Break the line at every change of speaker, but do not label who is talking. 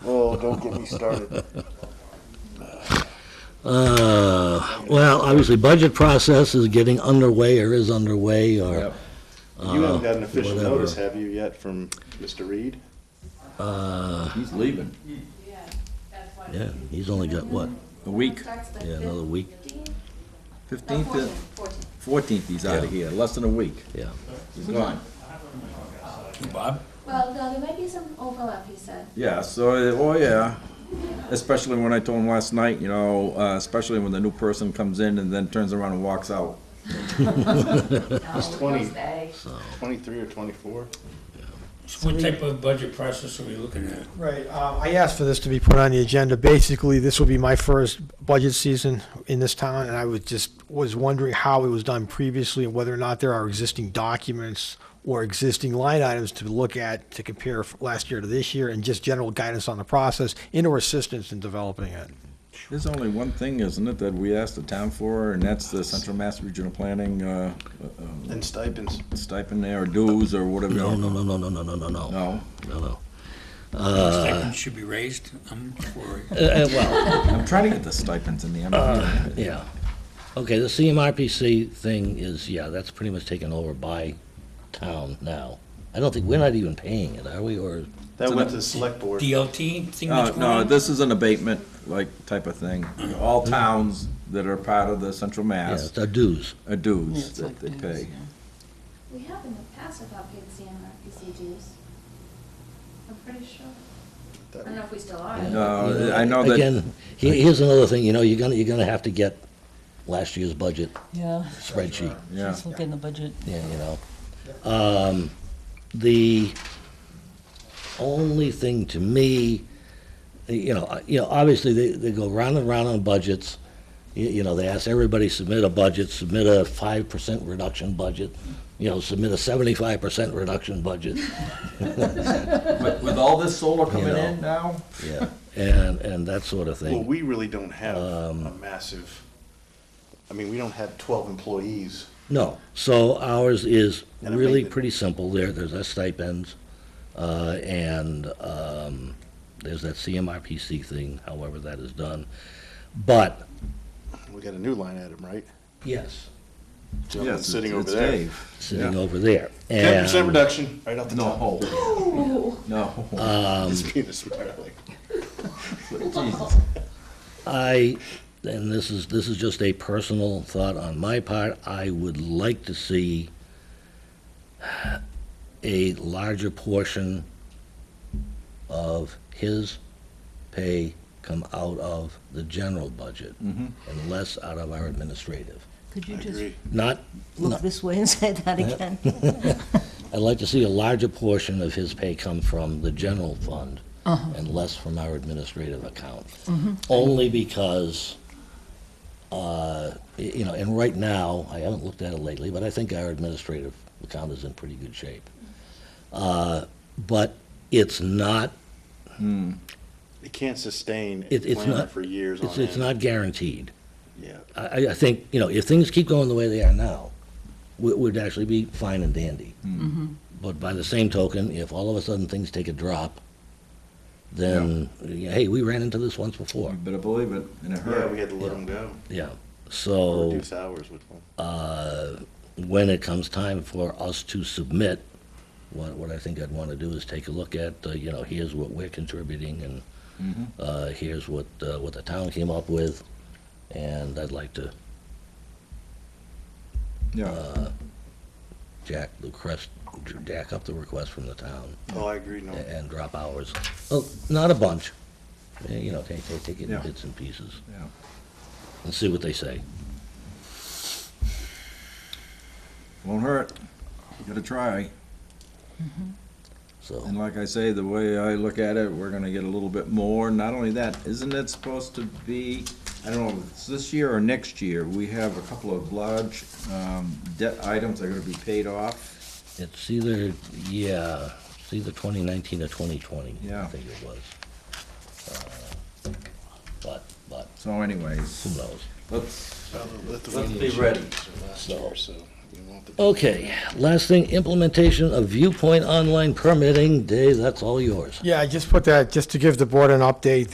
don't get me started.
Uh, well, obviously, budget process is getting underway or is underway or,
Yep.
You
Uh,
haven't got an official
whatever.
notice, have you, yet from Mr. Reed?
uh,
He's leaving.
yeah, he's only got what?
A week.
Yeah, another week.
Fifteenth,
Fourteen.
fourteenth, he's out
Yeah.
of here, less than a week.
Yeah.
He's gone.
Bob?
Well, no, there might be some overlap, he said.
Yeah, so, oh, yeah. Especially when I told him last night, you know, uh, especially when the new person comes in and then turns around and walks out.
Oh,
It's twenty, twenty-three or twenty-four?
What type of budget process are we looking at?
Right, um, I asked for this to be put on the agenda. Basically, this will be my first budget season in this town, and I was just, was wondering how it was done previously and whether or not there are existing documents or existing line items to look at to compare f- last year to this year and just general guidance on the process and or assistance in developing it.
There's only one thing, isn't it, that we asked the town for, and that's the Central Mass Regional Planning, uh, uh,
And stipends.
stipend there, or dues, or whatever.
No, no, no, no, no, no, no, no, no,
No,
no, no.
Uh,
Stipends should be raised, I'm for it.
Uh, uh, well,
I'm trying to get the stipends in the end.
yeah. Okay, the CMRPC thing is, yeah, that's pretty much taken over by town now. I don't think, we're not even paying it, are we, or?
That went to the select board.
DLT thing that's
Uh, No,
going
no,
on?
this is an abatement, like, type of thing. All towns that are part of the Central
Yeah,
Mass
it's our dues.
are dues that they pay.
We have in the past about paid CMRPC dues. I'm pretty sure. I don't know if we still are.
No, Uh, I know that,
Again, he- here's another thing, you know, you're gonna, you're gonna have to get last year's budget
Yeah,
spreadsheet.
yeah.
just look in the budget.
Yeah, you know. Um, the only thing to me, you know, I- you know, obviously they, they go round and round on budgets. You, you know, they ask everybody submit a budget, submit a five percent reduction budget, you know, submit a seventy-five percent reduction budget.
With with all this solar coming
know.
in now?
Yeah, and and that sort of
Well,
thing. Um,
we really don't have a massive, I mean, we don't have twelve employees.
No, so ours is
And a
really
maintenance.
pretty simple. There, there's our stipends, uh, and um, there's that CMRPC thing. However, that is done, but
We got a new line item, right?
Yes.
Gentleman
Yes,
sitting
it's-
over
it's
there.
Dave.
Sitting
Yeah.
over there.
Ten percent
And,
reduction, right off the top.
No. No.
um,
Just being a smart aleck.
Jesus.
I, and this is, this is just a personal thought on my part, I would like to see a larger portion of his pay come out of the general budget
Mhm.
and less out of our administrative.
Could you
I
just
agree.
Not,
look this way and say that again?
I'd like to see a larger portion of his pay come from the general fund and less from our administrative account. Only because, uh, y- you know, and right now, I haven't looked at it lately, but I think our administrative account is in pretty good shape. Uh, But it's not,
It can't sustain a
it- it's
plan
not.
for years
it's-
on
It's
end.
not guaranteed.
Yeah,
I, I- I think, you know, if things keep going the way they are now, we, we'd actually be fine and dandy. But by the same token, if all of a sudden things take a drop, then, yeah, hey, we ran into this once before,
You better believe it, and it
yeah, we
hurt.
had to let them go,
yeah. Oh. So,
reduce hours with them.
uh, when it comes time for us to submit, what, what I think I'd want to do is take a look at, uh, you know, here's what we're contributing and
Mm-hmm.
uh, here's what, uh, what the town came up with, and I'd like to uh,
Yeah,
jack the request, jack up the request from the town
Oh, I agree, no,
a- and drop hours. Well, not a bunch, Eh, you know, take, take, take it in
Yeah.
bits and pieces
yeah.
and see what they say.
Won't hurt. You gotta try.
So,
And like I say, the way I look at it, we're gonna get a little bit more. Not only that, isn't it supposed to be, I don't know, if it's this year or next year, we have a couple of large um, debt items that are gonna be paid off.
it's either, yeah, it's either 2019 or 2020. I
Yeah.
think it was. Uh, But, but,
So anyways,
who knows?
let's,
Well, let the
let's
wind
be
issue
ready.
last
So-
year, so You want the-
Okay, last thing, implementation of viewpoint online permitting. Dave, that's all yours.
Yeah, I just put that, just to give the board an update,